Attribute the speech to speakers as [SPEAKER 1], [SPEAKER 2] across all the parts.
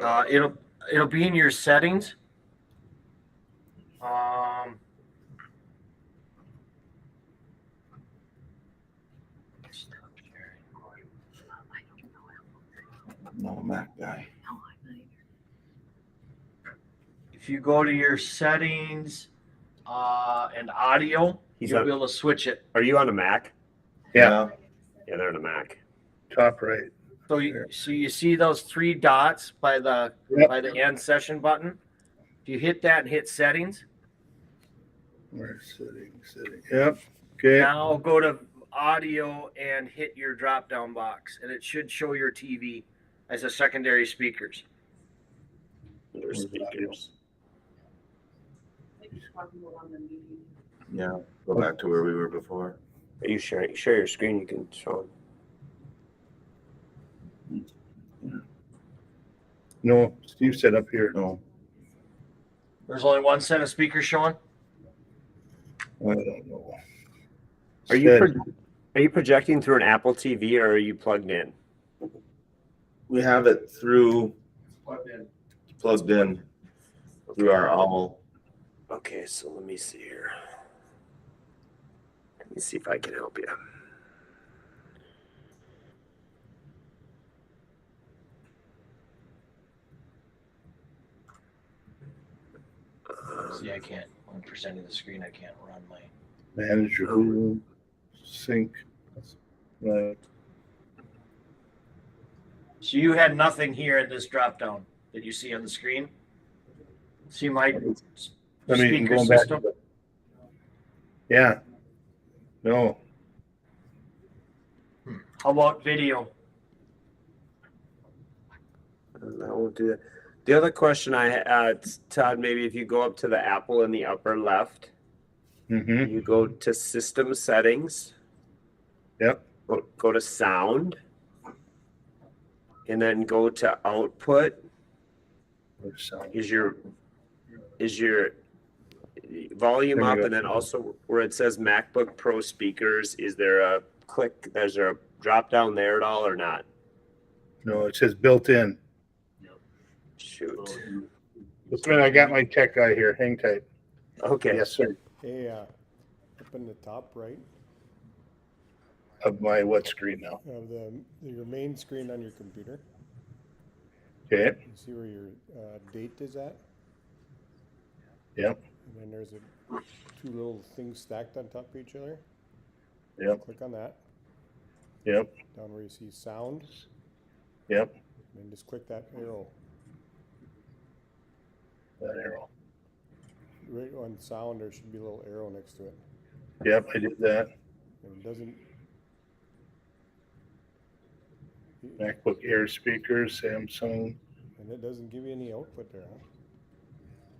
[SPEAKER 1] Uh, it'll, it'll be in your settings. Um. stop sharing.
[SPEAKER 2] Not a Mac guy.
[SPEAKER 1] If you go to your settings, uh, and audio,
[SPEAKER 3] He's
[SPEAKER 1] you'll
[SPEAKER 3] on-
[SPEAKER 1] be able to switch it.
[SPEAKER 3] Are you on a Mac?
[SPEAKER 4] Yeah.
[SPEAKER 3] Yeah, they're on a Mac.
[SPEAKER 4] Top right.
[SPEAKER 1] So you, so you see those three dots by the,
[SPEAKER 4] Yep.
[SPEAKER 1] by the end session button? If you hit that and hit settings,
[SPEAKER 4] We're sitting, sitting. Yep. Okay.
[SPEAKER 1] now go to audio and hit your drop down box and it should show your TV as a secondary speakers.
[SPEAKER 3] Under speakers.
[SPEAKER 2] Yeah, go back to where we were before.
[SPEAKER 3] Are you sharing? Share your screen. You can show them.
[SPEAKER 4] No, Steve said up here.
[SPEAKER 2] No,
[SPEAKER 1] There's only one set of speakers showing.
[SPEAKER 4] I don't know.
[SPEAKER 3] Are you
[SPEAKER 4] Said-
[SPEAKER 3] pro- are you projecting through an Apple TV or are you plugged in?
[SPEAKER 2] we have it through, plugged in through our owl.
[SPEAKER 3] Okay, so let me see here. Let me see if I can help you. Uh,
[SPEAKER 1] See, I can't, one percent of the screen, I can't run my.
[SPEAKER 4] manage your room, sync. Right.
[SPEAKER 1] So you had nothing here in this drop down that you see on the screen? See my s-
[SPEAKER 4] I mean,
[SPEAKER 1] speaker
[SPEAKER 4] going back.
[SPEAKER 1] system?
[SPEAKER 4] to- Yeah. No,
[SPEAKER 1] How about video?
[SPEAKER 3] That won't do that. The other question I, uh, Todd, maybe if you go up to the Apple in the upper left,
[SPEAKER 4] mm-hmm,
[SPEAKER 3] you go to System Settings.
[SPEAKER 4] Yep.
[SPEAKER 3] Go, go to Sound. And then go to Output. Is your is your volume
[SPEAKER 4] There we
[SPEAKER 3] up,
[SPEAKER 4] go.
[SPEAKER 3] and then also where it says MacBook Pro speakers, is there a click? Is there a drop down there at all or not?
[SPEAKER 4] no, it says built in.
[SPEAKER 3] Shoot.
[SPEAKER 4] Just a minute, I got my tech guy here, hang tight.
[SPEAKER 3] Okay.
[SPEAKER 4] Yes, sir.
[SPEAKER 5] Hey, uh, up in the top right
[SPEAKER 4] Of my what screen now?
[SPEAKER 5] of the your main screen on your computer,
[SPEAKER 4] Okay,
[SPEAKER 5] you see where your uh, date is at,
[SPEAKER 4] yep,
[SPEAKER 5] and then there's a two little things stacked on top of each other.
[SPEAKER 4] Yep.
[SPEAKER 5] Click on that
[SPEAKER 4] yep,
[SPEAKER 5] down where you see sound,
[SPEAKER 4] yep,
[SPEAKER 5] and then just click that arrow
[SPEAKER 4] that arrow.
[SPEAKER 5] right on sound. There should be a little arrow next to it.
[SPEAKER 4] Yep, I did that.
[SPEAKER 5] If it doesn't.
[SPEAKER 4] MacBook Air speakers, Samsung.
[SPEAKER 5] And it doesn't give you any output there. Huh?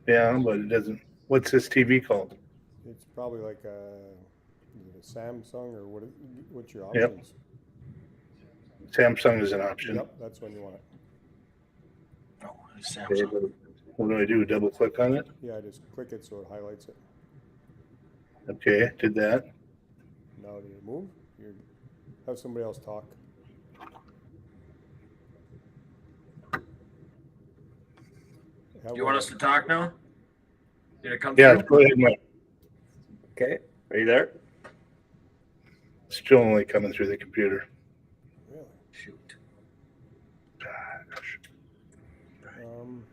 [SPEAKER 4] Yeah, but it doesn't, what's this TV called?
[SPEAKER 5] It's probably like a, is it a Samsung or what? What's your
[SPEAKER 4] Yep.
[SPEAKER 5] options?
[SPEAKER 4] Samsung is an option.
[SPEAKER 5] Yep, that's when you want it.
[SPEAKER 1] Oh,
[SPEAKER 4] Okay,
[SPEAKER 1] Samsung.
[SPEAKER 4] but What do I do? Double click on it?
[SPEAKER 5] Yeah, just click it so it highlights it.
[SPEAKER 4] Okay, did that.
[SPEAKER 5] Now do you move? You have somebody else talk. Have
[SPEAKER 1] You want
[SPEAKER 5] a-
[SPEAKER 1] us to talk now? Did it come
[SPEAKER 4] Yeah,
[SPEAKER 1] through?
[SPEAKER 4] go ahead, Mike.
[SPEAKER 3] Okay. Are you there?
[SPEAKER 4] Still only coming through the computer.
[SPEAKER 5] Really?
[SPEAKER 1] Shoot.
[SPEAKER 4] Ah, Gosh.
[SPEAKER 5] Um,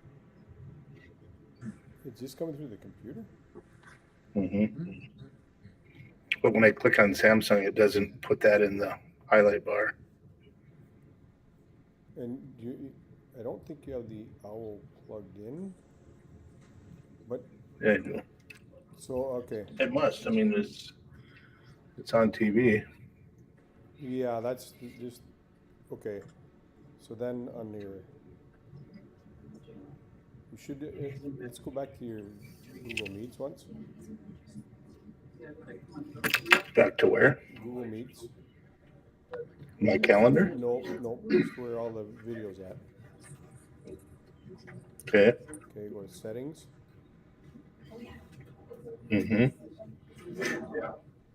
[SPEAKER 5] it's just coming through the computer.
[SPEAKER 4] Mhm. But when I click on Samsung, it doesn't put that in the highlight bar.
[SPEAKER 5] And do you, I don't think you have the owl plugged in. But
[SPEAKER 4] Yeah, I do.
[SPEAKER 5] so okay,
[SPEAKER 4] It must. I mean, it's it's on TV.
[SPEAKER 5] yeah, that's just okay. So then on your, you should uh, let's go back to your Google Meets once.
[SPEAKER 4] Back to where?
[SPEAKER 5] Google Meets.
[SPEAKER 4] My calendar.
[SPEAKER 5] No, no, that's where all the videos at.
[SPEAKER 4] Okay.
[SPEAKER 5] Okay, go to settings.
[SPEAKER 4] Mm-hmm.
[SPEAKER 5] Of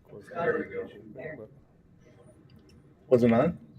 [SPEAKER 5] course, there we go.
[SPEAKER 4] Wasn't on.